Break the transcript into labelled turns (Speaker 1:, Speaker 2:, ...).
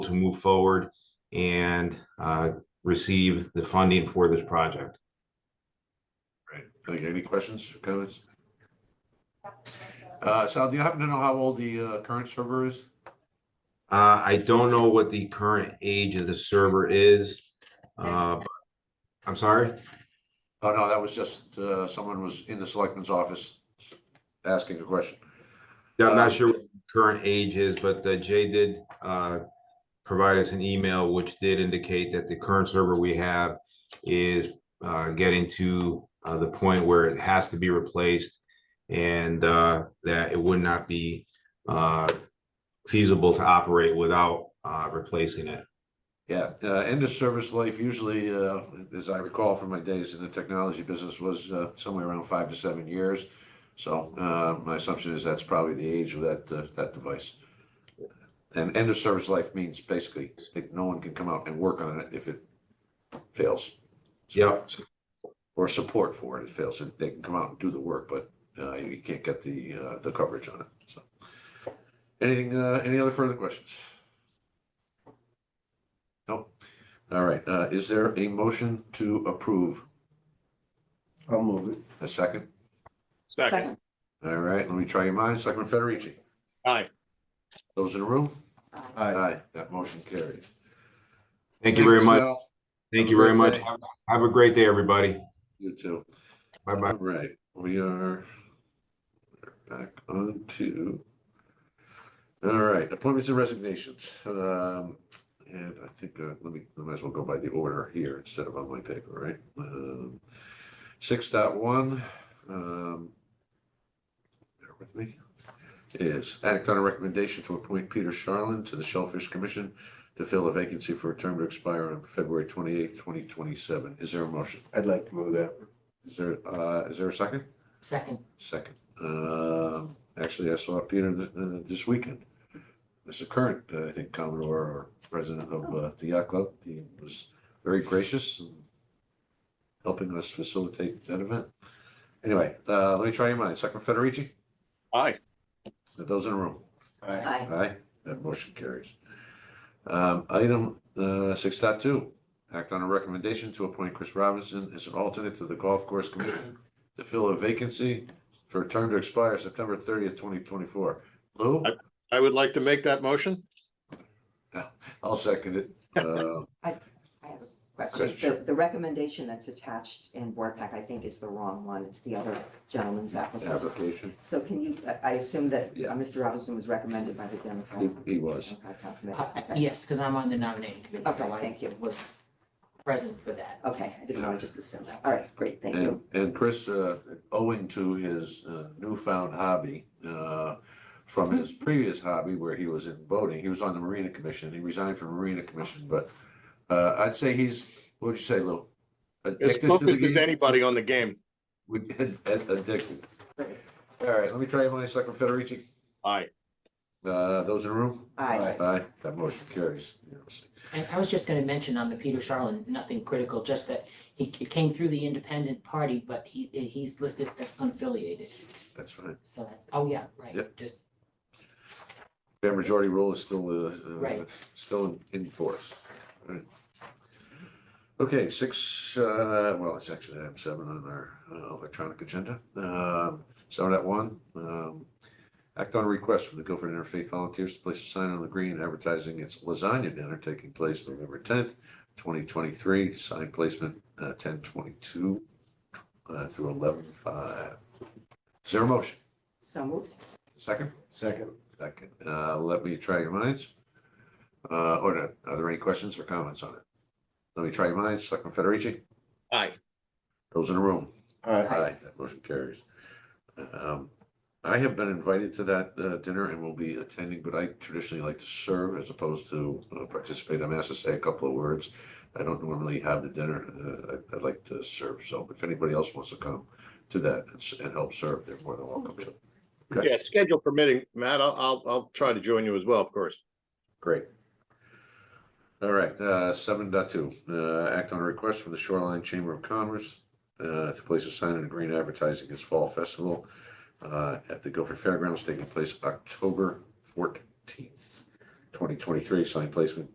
Speaker 1: to move forward and uh, receive the funding for this project.
Speaker 2: Right. Thank you. Any questions, comments? Uh, Sal, do you happen to know how old the, uh, current server is?
Speaker 1: Uh, I don't know what the current age of the server is. uh, but- I'm sorry?
Speaker 2: Oh, no, that was just, uh, someone was in the selectman's office asking a question.
Speaker 1: Yeah, I'm
Speaker 2: Uh,
Speaker 1: not sure what the current age is, but uh, Jay did uh, provide us an email which did indicate that the current server we have is uh, getting to uh, the point where it has to be replaced and uh, that it would not be uh, feasible to operate without uh, replacing it.
Speaker 2: Yeah, uh, end of service life usually, uh, as I recall from my days in the technology business, was, uh, somewhere around five to seven years. So, uh, my assumption is that's probably the age of that, uh, that device. And end of service life means basically, that no one can come out and work on it if it fails.
Speaker 1: Yep,
Speaker 2: or support for it. It fails, and they can come out and do the work, but uh, you can't get the uh, the coverage on it. So, anything? Uh, any other further questions? Nope. All right. Uh, is there a motion to approve?
Speaker 3: I'll move it.
Speaker 2: A second.
Speaker 4: Second.
Speaker 2: All right. Let me try your minds. Selectman Federici.
Speaker 4: Aye.
Speaker 2: Those in the room.
Speaker 3: Aye.
Speaker 2: That motion carries.
Speaker 1: thank you very much.
Speaker 2: Sal.
Speaker 1: Thank
Speaker 2: uh, Have
Speaker 1: you
Speaker 2: a
Speaker 1: very
Speaker 2: great
Speaker 1: much.
Speaker 2: day.
Speaker 1: Have- Have a great day, everybody.
Speaker 2: You too.
Speaker 1: Bye-bye.
Speaker 2: All right, we are back on to, all right, appointments and resignations. Um, and I think, uh, let me, I might as well go by the order here instead of on my paper, right? Um, six dot one, um, bear with me, is act on a recommendation to appoint Peter Sharlin to the Shellfish Commission to fill a vacancy for a term to expire on February twenty-eighth, twenty twenty-seven. Is there a motion?
Speaker 3: I'd like to move that.
Speaker 2: Is there, uh, is there a second?
Speaker 5: Second,
Speaker 2: Second, um, actually, I saw Peter th- uh, this weekend. As a current, uh, I think Commodore or president of, uh, the yacht club, he was very gracious and helping us facilitate that event. Anyway, uh, let me try your mind. Second Federici,
Speaker 4: Aye.
Speaker 2: those in the room?
Speaker 5: aye,
Speaker 2: Aye, that motion carries. Um, item, uh, six act on a recommendation to appoint Chris Robinson as an alternate to the Golf Course Commission to fill a vacancy for a term to expire September thirtieth, twenty twenty-four. Lou,
Speaker 4: I would like to make that motion.
Speaker 2: I'll second it. Uh,
Speaker 5: question.
Speaker 2: Question.
Speaker 5: The, the recommendation that's attached in Board Pack, I think, is the wrong one. It's the other gentleman's application.
Speaker 2: application,
Speaker 5: So can you, I- I assume that
Speaker 2: Yeah.
Speaker 5: uh, Mr. Robinson was recommended by the Democrat.
Speaker 2: he, he was.
Speaker 5: Democrat
Speaker 6: Uh,
Speaker 5: committee. Okay.
Speaker 6: Yes, because I'm on the nominating committee, so
Speaker 5: Okay,
Speaker 6: I
Speaker 5: thank you.
Speaker 6: was present for that.
Speaker 5: Okay, I didn't want to just assume that. All right, great, thank
Speaker 2: And,
Speaker 5: you.
Speaker 2: and Chris, uh, owing to his uh, newfound hobby, uh, from his previous hobby where he was in boating, he was on the Marina Commission. He resigned from Marina Commission, but, uh, I'd say he's, what'd you say, Lou?
Speaker 4: As
Speaker 2: Addicted to
Speaker 4: focused as
Speaker 2: the,
Speaker 4: anybody on the game.
Speaker 2: would- addicted.
Speaker 5: Great.
Speaker 2: All right, let me try my second Federici.
Speaker 4: Aye.
Speaker 2: Uh, those in the room?
Speaker 5: Aye,
Speaker 2: Aye, that motion carries. unanimously.
Speaker 6: And I was just gonna mention on the Peter Sharlin, nothing critical, just that he c- came through the independent party, but he, he's listed as unaffiliated.
Speaker 2: That's fine.
Speaker 6: So, oh yeah, right,
Speaker 2: Yep.
Speaker 6: just,
Speaker 2: Fair majority rule is still, uh, uh,
Speaker 6: Right.
Speaker 2: still in- in force. Right. Okay, six, uh, well, it's actually item seven on our uh, electronic agenda. Um, Seven at one, um, act on a request from the Guilford Interfaith Volunteers to place a sign on the green advertising its lasagna dinner taking place November tenth, twenty twenty-three, sign placement uh, ten twenty-two uh, through eleven five. Is there a motion?
Speaker 5: so moved.
Speaker 2: Second?
Speaker 3: Second.
Speaker 2: Second, uh, let me try your minds. Uh, or no, are there any questions or comments on it? Let me try your minds, Selectman Federici,
Speaker 4: Aye.
Speaker 2: those in the room.
Speaker 3: Aye.
Speaker 2: That motion carries. Um, I have been invited to that, uh, dinner and will be attending, but I traditionally like to serve as opposed to uh, participate. I'm asked to say a couple of words. I don't normally have the dinner, uh, I, I'd like to serve, so if anybody else wants to come to that and, s- and help serve, they're more than welcome to. Okay.
Speaker 4: Yeah, schedule permitting, Matt, I'll, I'll, I'll try to join you as well, of course.
Speaker 2: Great. All right, uh, seven dot two, uh, act on a request from the Shoreline Chamber of Commerce, uh, to place a sign in the green advertising its fall festival, uh, at the Guilford Fairgrounds taking place October fourteenth, twenty twenty-three, sign placement